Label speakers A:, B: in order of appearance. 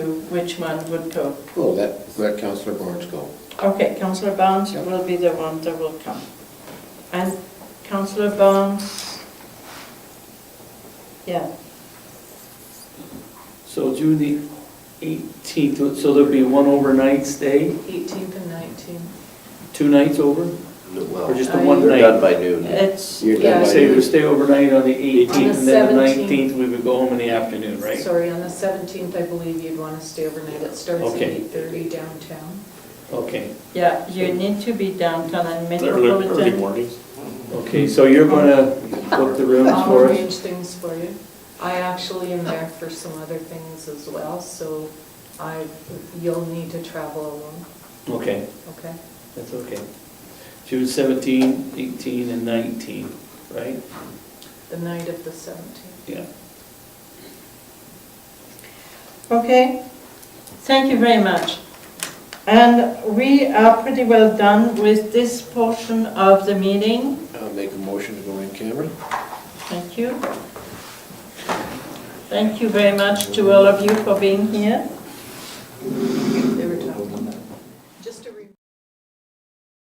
A: which one would go.
B: Oh, that, let Counselor Barnes go.
A: Okay, Councillor Barnes
B: Yeah.
A: will be the one that will come. And Councillor Barnes, yeah,
C: So June the 18th, so there'll be one overnight stay,
D: 18th and 19th.
C: two nights over? Or
E: Well,
C: just the
D: I-
C: one
E: they're
C: night?
E: done by noon.
A: it's,
B: You're
D: Oh. Yeah.
B: done by
C: Say we
B: you.
C: stay overnight on the
D: On the
C: 18th, and then the
D: 17th.
C: 19th, we would go home in the afternoon, right?
D: Sorry, on the 17th, I believe you'd want to stay overnight. It starts at
C: Okay.
D: 8:30 downtown.
C: Okay,
A: yeah, you need to be downtown and
F: Early, early
A: metropolitan.
F: mornings.
C: okay, so you're gonna book the rooms
D: I'll
C: for us?
D: arrange things for you. I actually am there for some other things as well, so I, you'll need to travel alone,
C: Okay,
D: okay?
C: that's okay. June 17, 18, and 19, right?
D: The night of the 17th.
C: Yeah.
A: Okay, thank you very much. And we are pretty well done with this portion of the meeting.
B: I'll make a motion to go in camera.
A: Thank you. Thank you very much to all of you for being here.